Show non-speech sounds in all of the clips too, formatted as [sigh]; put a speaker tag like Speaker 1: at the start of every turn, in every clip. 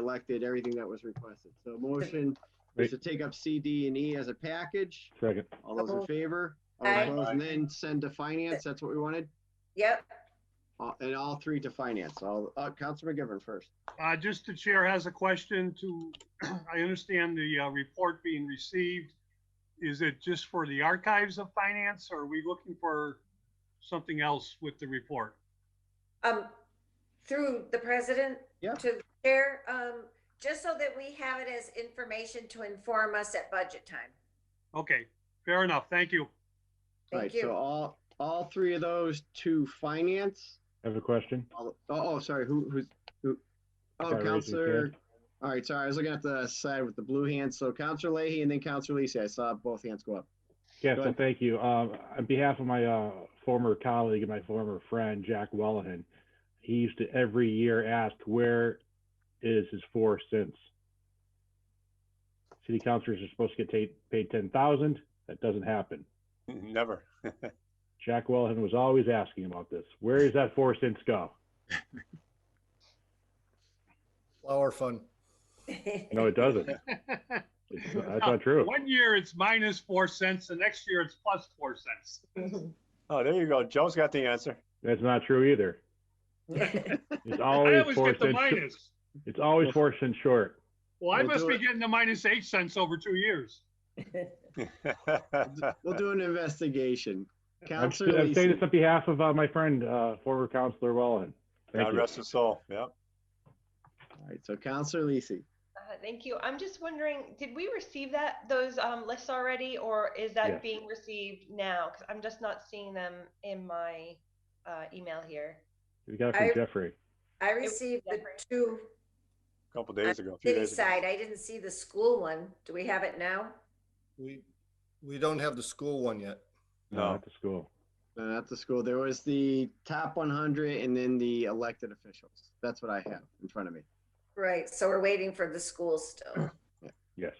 Speaker 1: elected, everything that was requested. So motion is to take up C, D, and E as a package.
Speaker 2: Second.
Speaker 1: All those in favor? All
Speaker 3: Aye.
Speaker 1: opposed? And then send to finance, that's what we wanted?
Speaker 3: Yep,
Speaker 1: Uh, And all three to finance. All, uh, Counselor McGivern first.
Speaker 4: Uh, just the chair has a question to, [clears throat] I understand the, uh, report being received. Is it just for the archives of finance or are we looking for something else with the report?
Speaker 3: um, through the president.
Speaker 1: Yeah.
Speaker 3: To the chair, um, just so that we have it as information to inform us at budget time.
Speaker 4: Okay, fair enough. Thank you.
Speaker 3: Thank
Speaker 1: Right,
Speaker 3: you.
Speaker 1: so
Speaker 3: [laughs]
Speaker 1: all, all three of those to finance.
Speaker 2: I have a question.
Speaker 1: All- Oh, oh, sorry, who, who's, who?
Speaker 2: Okay,
Speaker 1: Oh,
Speaker 2: raise your
Speaker 1: Counselor,
Speaker 2: hand.
Speaker 1: all right, sorry, I was looking at the side with the blue hand. So Counselor Leahy and then Counselor Lisi, I saw both hands go up.
Speaker 2: Yeah,
Speaker 1: Go
Speaker 2: so
Speaker 1: ahead.
Speaker 2: thank you. Um, on behalf of my, uh, former colleague and my former friend, Jack Wellahan, he used to every year ask, where is his four cents? City councilors are supposed to get paid, paid ten thousand. That doesn't happen.
Speaker 5: [laughs] Never.
Speaker 2: Jack Wellahan was always asking about this. Where does that four cents go?
Speaker 6: Flower fund.
Speaker 7: Uh,
Speaker 2: No, it doesn't. It's- That's not true.
Speaker 4: One year it's minus four cents, the next year it's plus four cents.
Speaker 5: Oh, there you go. Joe's got the answer. [laughs]
Speaker 2: That's not true either.
Speaker 4: [laughs]
Speaker 2: It's
Speaker 4: I
Speaker 2: always
Speaker 4: always
Speaker 2: four
Speaker 4: get the
Speaker 2: cents.
Speaker 4: minus.
Speaker 2: It's always four cents short.
Speaker 4: Well, I
Speaker 1: We'll
Speaker 4: must
Speaker 1: do
Speaker 4: be
Speaker 1: it.
Speaker 4: getting the minus eight cents over two years.
Speaker 1: We'll do an investigation.
Speaker 2: Uh, I'm
Speaker 1: Counselor
Speaker 2: I'm saying this
Speaker 1: Lisi,
Speaker 2: on behalf of uh, my friend, uh, former Counselor Wellen. Thank
Speaker 5: God
Speaker 2: you.
Speaker 5: rest his soul. Yep.
Speaker 1: all right, so Counselor Lisi.
Speaker 7: Uh, Thank you. I'm just wondering, did we receive that, those um, lists already, or is
Speaker 2: Yes.
Speaker 7: that being received now? Because I'm just not seeing them in my uh, email here.
Speaker 2: We got it
Speaker 3: I-
Speaker 2: from Jeffrey.
Speaker 3: I received the two
Speaker 5: A couple days ago. a few
Speaker 3: city
Speaker 5: days ago.
Speaker 3: side. I didn't see the school one. Do we have it now?
Speaker 6: We, we don't have the school one yet.
Speaker 5: No.
Speaker 2: uh, At the school.
Speaker 1: No, not the school. There was the top 100 and then the elected officials. That's what I have in front of me.
Speaker 3: Right, so we're waiting for the school still.
Speaker 1: [clears throat]
Speaker 2: Yes.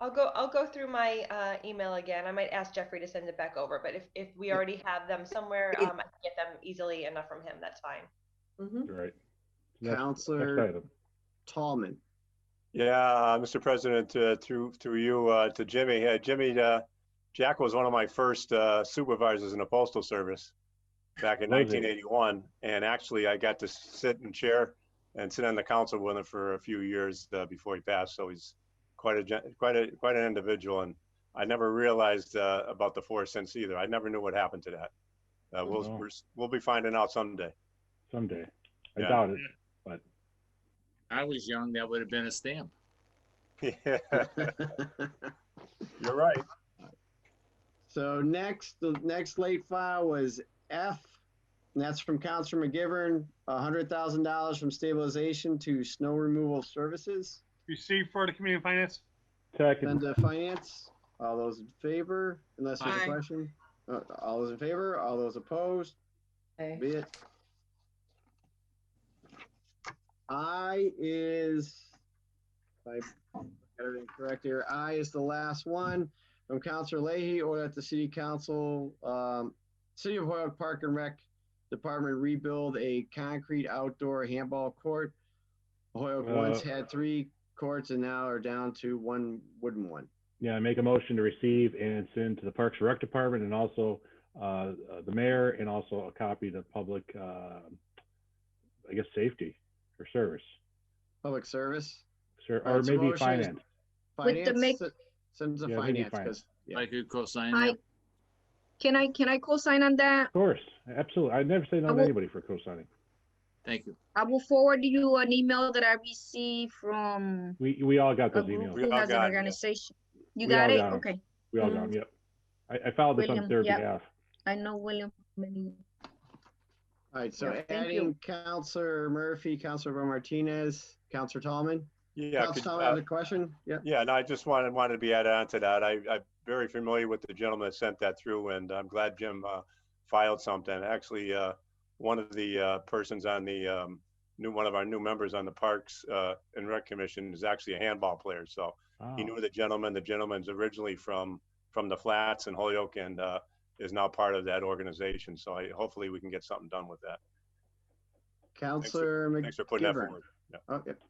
Speaker 7: I'll go, I'll go through my uh, email again. I might ask Jeffrey to send it back over, but if, if we already have them somewhere,
Speaker 3: Yeah.
Speaker 7: um, I can get them easily enough from him, that's fine.
Speaker 3: Mhm.
Speaker 2: You're right. Next-
Speaker 1: Counselor
Speaker 2: next item.
Speaker 1: Tallman.
Speaker 5: Yeah, uh, Mr. President, uh, through, through you, uh, to Jimmy. Uh, Jimmy, uh, Jack was one of my first uh, supervisors in the Postal Service back in
Speaker 2: Was he?
Speaker 5: 1981. And actually, I got to sit in chair and sit on the council with him for a few years uh, before he passed. So he's quite a, gen- quite a, quite an individual. And I never realized uh, about the four cents either. I never knew what happened to that. Uh, We'll,
Speaker 2: No.
Speaker 5: we're- we'll be finding out someday. [laughs]
Speaker 2: Someday. I
Speaker 5: Yeah.
Speaker 2: doubt it.
Speaker 8: I was young, that would have been a stamp.
Speaker 5: Yeah, You're right.
Speaker 1: So next, the next late file was F, and that's from Counselor McGivern, hundred thousand dollars from stabilization to snow removal services.
Speaker 4: Received for the community finance?
Speaker 1: Send
Speaker 2: Second,
Speaker 1: to finance. All those in favor, unless there's a
Speaker 3: Aye.
Speaker 1: question. Uh, all those in favor, all those opposed,
Speaker 3: Okay.
Speaker 1: be it. I is, if I got everything correct here, I is the last one from Counselor Leahy, or that the city council, um, City of Hoyoke Park and Rec Department rebuild a concrete outdoor handball court. Hoyoke
Speaker 2: Uh,
Speaker 1: once had three courts and now are down to one wooden one.
Speaker 2: yeah, I make a motion to receive and send to the Parks and Rec Department and also, uh, uh, the mayor and also a copy to public, uh, I guess, safety or service,
Speaker 1: Public service,
Speaker 2: Sir-
Speaker 1: All
Speaker 2: or
Speaker 1: right, so motion
Speaker 2: maybe
Speaker 1: is-
Speaker 2: finance.
Speaker 9: With the
Speaker 1: finance, send to
Speaker 2: Yeah, maybe
Speaker 1: finance,
Speaker 2: finance.
Speaker 1: because, yeah.
Speaker 8: I could co-sign
Speaker 9: I-
Speaker 8: that.
Speaker 9: Can I, can I co-sign on that?
Speaker 2: Of course, absolutely. I never say no
Speaker 9: I
Speaker 2: to
Speaker 9: will-
Speaker 2: anybody for co-signing.
Speaker 8: Thank you.
Speaker 9: I will forward you an email that I received from
Speaker 2: We, we all got
Speaker 9: a
Speaker 2: those
Speaker 9: group
Speaker 2: emails.
Speaker 5: We all
Speaker 9: who
Speaker 5: got
Speaker 9: has an
Speaker 5: it, yeah.
Speaker 9: organization. You
Speaker 2: We all
Speaker 9: got it?
Speaker 2: got 'em.
Speaker 9: Okay,
Speaker 2: We all got them, yep. I, I filed this on
Speaker 9: William,
Speaker 2: their
Speaker 9: yep.
Speaker 2: behalf.
Speaker 9: I know William. many-
Speaker 1: All right, so
Speaker 9: Yeah, thank you.
Speaker 1: adding Counselor Murphy, Counselor Ro Martinez, Counselor Tallman.
Speaker 5: Yeah.
Speaker 1: Counselor
Speaker 5: could-
Speaker 1: Tallman
Speaker 5: uh,
Speaker 1: has a question? Yep.
Speaker 5: Yeah, and I just wanted, wanted to be added on to that. I, I'm very familiar with the gentleman that sent that through, and I'm glad Jim uh, filed something. Actually, uh, one of the uh, persons on the, um, new, one of our new members on the Parks uh, and Rec Commission is actually a handball player, so he
Speaker 2: Wow.
Speaker 5: knew the gentleman. The gentleman's originally from, from the Flats in Holyoke and uh, is now part of that organization, so I, hopefully we can get something done with that.
Speaker 1: Counselor
Speaker 5: Thanks for putting that
Speaker 1: McGivern.
Speaker 5: forward.
Speaker 1: Oh, yep.